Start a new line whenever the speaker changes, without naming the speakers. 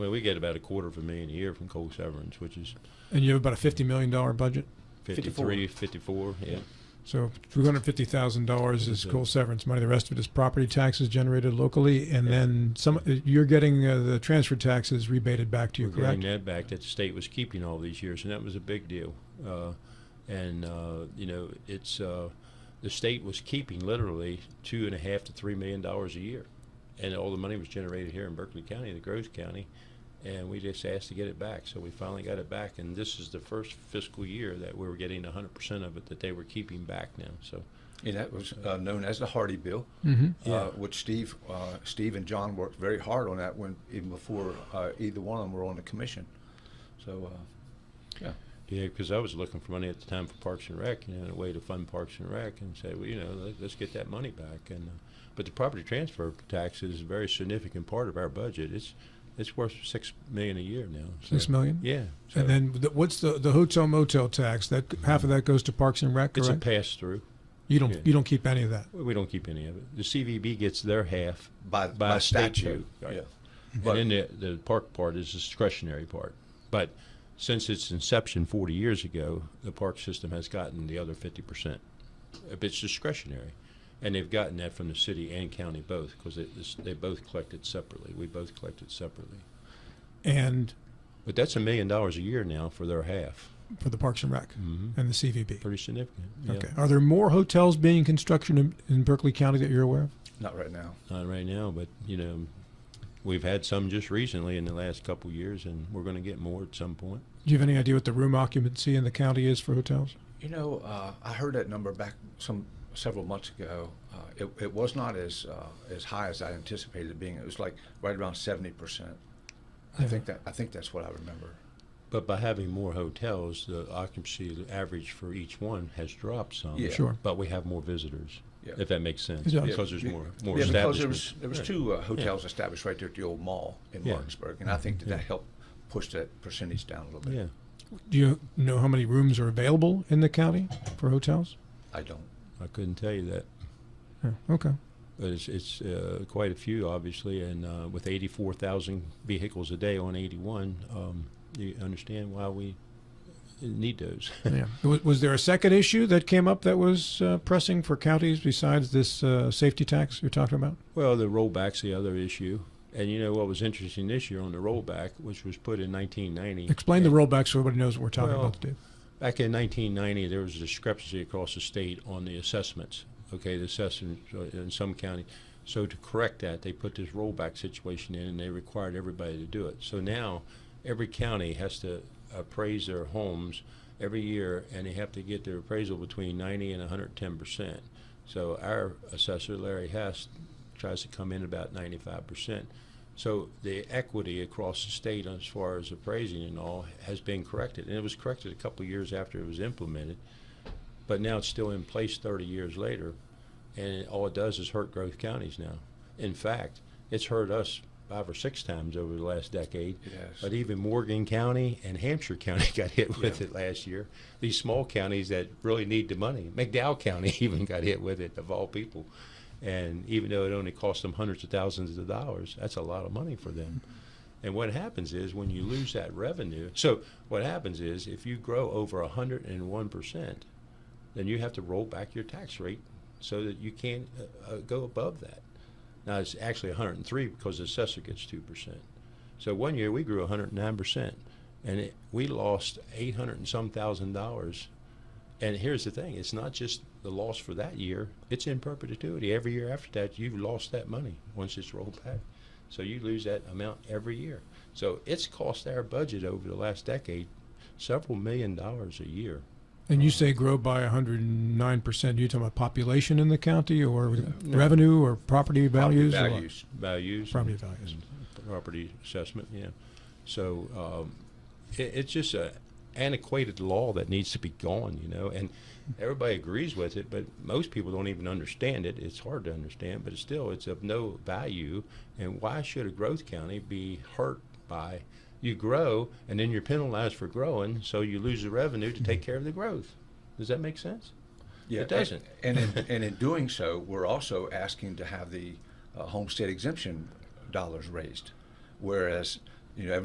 Well, we get about a quarter of a million a year from coal severance, which is
And you have about a $50 million budget.
53, 54, yeah.
So $350,000 is
Mhm.
coal severance money. The rest of it is property taxes generated locally. And then some, you're getting uh, the transfer taxes rebated back to you,
We're getting that
correct?
back that the state was keeping all these years, and that was a big deal. Uh, and uh, you know, it's uh, the state was keeping literally two and a half to three million dollars a year, and all the money was generated here in Berkeley County, the Groves County, and we just asked to get it back. So we finally got it back, and this is the first fiscal year that we were getting 100 percent of it that they were keeping back now. So
And that was uh, known as the Hardy Bill,
Mm-hmm.
Yeah.
uh, which Steve, uh, Steve and John worked very hard on that when even before uh, either one of them were on the commission. So, uh, yeah,
Yeah, because I was looking for money at the time for Parks and Rec, you know, and a way to fund Parks and Rec, and said, well, you know, let, let's get that money back. And uh, but the property transfer tax is a very significant part of our budget. It's it's worth six million a year now. so-
Six million?
Yeah. so
And then the- what's the, the hotel motel tax? That, half of that goes to Parks and Rec,
it's
correct?
a pass through. yeah.
You don't, you don't keep any of that.
We don't keep any of it. The CVB gets their half
by,
by,
statute.
statute. right.
Yeah.
But
But-
and then the, the park part is the discretionary part. But since its inception 40 years ago, the park system has gotten the other 50%. If it's discretionary. And they've gotten that from the city and county both because they both collected separately. We both collected separately.
And
But that's a million dollars a year now for their half.
for the Parks and Rec
Mhm.
and the CVB.
Pretty significant. yeah.
Mm-hmm. Okay. Are there more hotels being constructed in, in Berkeley County that you're aware of?
Not right now.
Not right now, but you know, we've had some just recently in the last couple years, and we're going to get more at some point.
Do you have any idea what the room occupancy in the county is for hotels?
You know, uh, I heard that number back some several months ago. Uh, it, it was not as uh, as high as I anticipated it being. It was like right around seventy percent. I
Yeah.
think that I think that's what I remember.
But by having more hotels, the occupancy average for each one has dropped some.
Yeah.
Sure.
But we have more visitors,
Yeah.
if that makes sense,
It does.
because there's
Yeah,
more more
yeah, because there
establishments.
was there was
Yeah.
two uh, hotels established right there at the old mall in
Yeah.
Martinsburg, and I think that that
Yeah.
helped push that percentage down a little bit.
Yeah,
Do you know how many rooms are available in the county for hotels?
I don't.
I couldn't tell you that,
Yeah, Okay.
but it's it's uh, quite a few, obviously, and uh, with 84,000 vehicles a day on 81, um, you understand why we need those.
Yeah. Was, was there a second issue that came up that was uh, pressing for counties besides this uh, safety tax you're talking about?
Well, the rollback's the other issue. And you know what was interesting this year on the rollback, which was put in 1990.
Explain the rollback so everybody knows what we're talking
Well,
about, Dave.
Back in 1990, there was a discrepancy across the state on the assessments. Okay, the assessments uh, in some county. So to correct that, they put this rollback situation in, and they required everybody to do it. So now, every county has to appraise their homes every year, and they have to get their appraisal between 90 and 110 percent. So our assessor Larry Hess tries to come in about 95 percent. So the equity across the state as far as appraising and all has been corrected. And it was corrected a couple of years after it was implemented, but now it's still in place 30 years later. And it- all it does is hurt growth counties now. In fact, it's hurt us five or six times over the last decade.
It has.
But even Morgan County and Hampshire County got hit with it last year. These small counties that really need the money. McDowell County even got hit with it, of all people. And even though it only cost them hundreds of thousands of dollars, that's a lot of money for them. And what happens is when you lose that revenue, so what happens is if you grow over 101%, then you have to roll back your tax rate so that you can't uh, uh, go above that. Now it's actually 103 because the assessor gets 2%. So one year we grew 109%, and it, we lost 800 and some thousand dollars. And here's the thing it's not just the loss for that year, it's in perpetuity. Every year after that, you've lost that money once it's rolled back. So you lose that amount every year. So it's cost our budget over the last decade several million dollars a year.
And you say grow by 109%. Are you talking about population in the county or revenue or property values? or what?
values.
values.
Property
and-
values.
and Property assessment, yeah. So um, it, it's just a antiquated law that needs to be gone, you know, and everybody agrees with it, but most people don't even understand it. It's hard to understand, but still, it's of no value. And why should a growth county be hurt by you grow and then you're penalized for growing, so you lose the revenue to take care of the growth? Does that make sense?
Yeah, uh,
It doesn't.
And and in, and in doing so, we're also asking to have the uh, homestead exemption dollars raised, whereas you know,